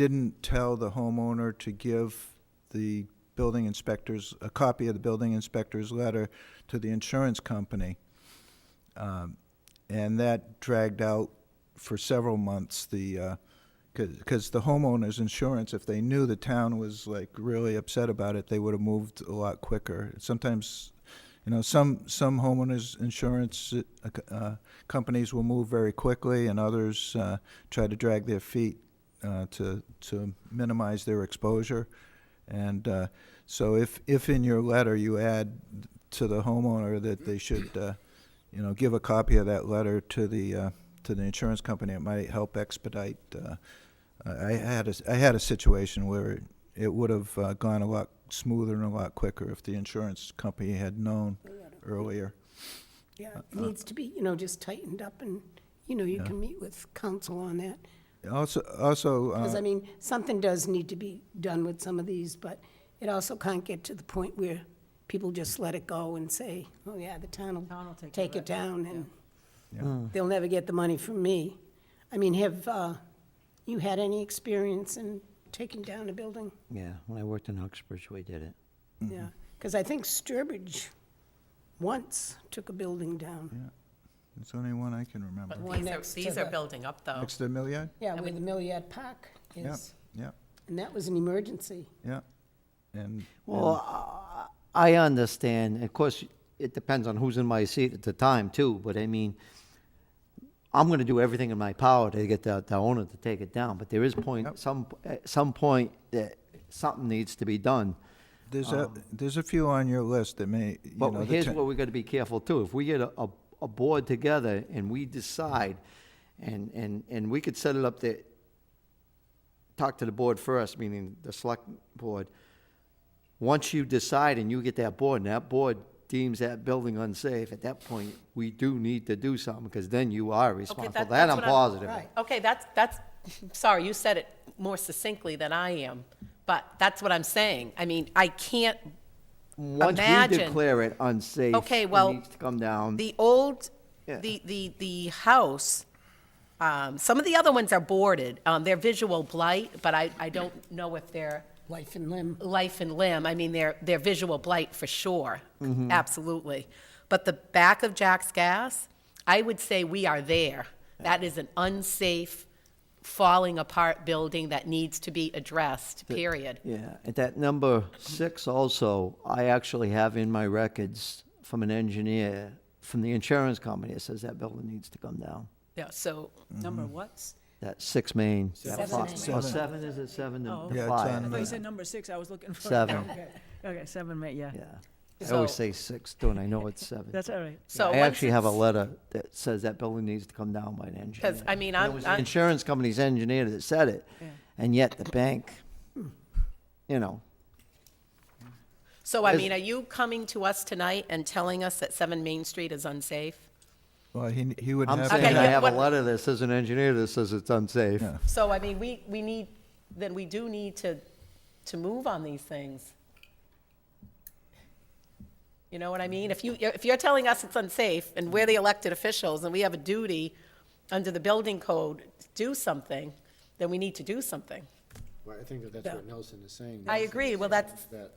didn't tell the homeowner to give the building inspectors, a copy of the building inspector's letter to the insurance company. Um, And that dragged out for several months the, because the homeowner's insurance, if they knew the town was like really upset about it, they would have moved a lot quicker. Sometimes, you know, some, some homeowners' insurance uh, c- uh, companies will move very quickly and others uh, try to drag their feet uh, to, to minimize their exposure. And uh, so if, if in your letter you add to the homeowner that they should, uh, you know, give a copy of that letter to the, uh, to the insurance company, it might help expedite. uh, I I had, a s- I had a situation where it- it would have uh, gone a lot smoother and a lot quicker if the insurance company had known earlier. Yeah, Uh, it needs to be, you know, just tightened up and, you know, you can meet with council on that. Also, also. uh, Because, I mean, something does need to be done with some of these, but it also can't get to the point where people just let it go and say, oh, yeah, the town Town will will take take care it down, and Yeah. they'll never get the money from me. I mean, have, uh, you had any experience in taking down a building? Yeah, when I worked in Uxbridge, we did it. Mm-hmm. Yeah, because I think Sturbridge once took a building Mm-hmm. down. It's the only one I can remember. one These are, next to these are the- building up, though. Next to the Milliard? Yeah, where the Milliard Park Yeah, is, yeah, and that was an emergency. yeah. And, Well, I I understand, of course, it depends on who's in my seat at the time too, but I mean, I'm gonna do everything in my power to get the, the owner to take it down, but there is point, some, at some point, that something needs to be done. there's a, there's a few on your list that may, you know. But the Um. here's ta- what we gotta be careful too, if we get a, a, a board together and we decide, and, and, and we could set it up that, talk to the board first, meaning the select board, once you decide and you get that board, and that board deems that building unsafe, at that point, we do need to do something, because then you are responsible. that- That that's I'm what I'm- positive. of. Right. Okay, that's, that's, sorry, you said it more succinctly than I am, but that's what I'm saying. I mean, I can't Once we Imagine. declare it unsafe, Okay, it well, needs to come down. The old, Yeah. the, the, the house, um, some of the other ones are boarded. Um, they're visual blight, but I, I don't know if they're Life and limb. life and limb. I mean, they're, they're visual blight for sure, Mm-hmm. absolutely. But the back of Jack's Gas, I would say we are there. That is an unsafe, falling apart building that needs to be addressed, period. Yeah, at that number six also, I actually have in my records from an engineer, from the insurance company, it says that building needs to come down. Yeah, so, number what's? That six main. Seven. that fi- oh, Seven. seven, is it seven Yeah, to the it's on the- five? Oh, I thought you said number six, I was looking for. Seven. Okay. Okay, seven, ma- yeah, Yeah, I So- always say six, don't I know it's seven. that's all right. So I once actually have a it's- letter that says that building needs to come down by an engineer. 'Cause, I mean, And I'm- It was the I'm- insurance company's engineer that said it, and yet the bank, Hmm. you know, So I Is- mean, are you coming to us tonight and telling us that 7 Main Street is unsafe? Well, he, he would I'm have. Okay, saying I yeah, to- have a what- letter that says an engineer that says it's unsafe. Yeah. So I mean, we, we need, then we do need to, to move on these things. You know what I mean? If you, if you're telling us it's unsafe and we're the elected officials and we have a duty under the building code to do something, then we need to do something. Well, I think that that's what Nelson is saying. I Nelson agree. is Well, saying that's- That,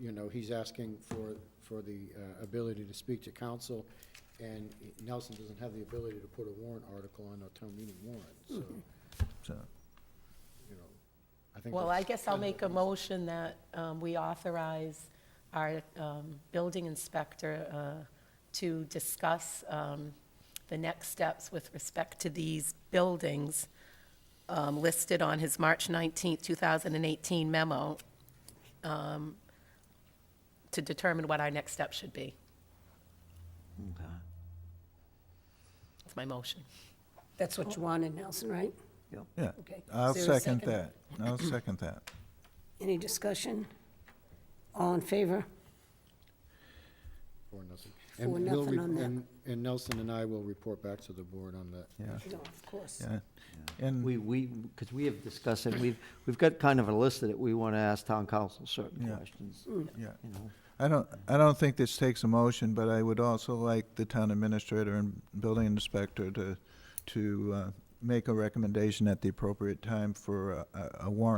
you know, he's asking for, for the uh, ability to speak to council, and Nelson doesn't have the ability to put a warrant article on a town meeting warrant, so, you Mm-hmm. so- know, I think. Well, that- I guess I'll make a motion that um, we authorize our um, building inspector uh, to discuss um, the next steps with respect to these buildings um, listed on his March 19, 2018 memo um, to determine what our next step should be. That's my motion. That's what you wanted, Nelson, right? Yeah, Okay. I'll Is there a second second? that. I'll second that. Any discussion? All in favor? For nothing. For And he'll nothing re- on that. and- And Nelson and I will report back to the board on that. Yeah, No, of course. yeah. And, We, we, because we have discussed it, we've, we've got kind of a list that we want to ask town council certain Yeah. questions, yeah. you know. I don't, I don't think this takes a motion, but I would also like the town administrator and building inspector to, to uh, make a recommendation at the appropriate time for a- a, a warrant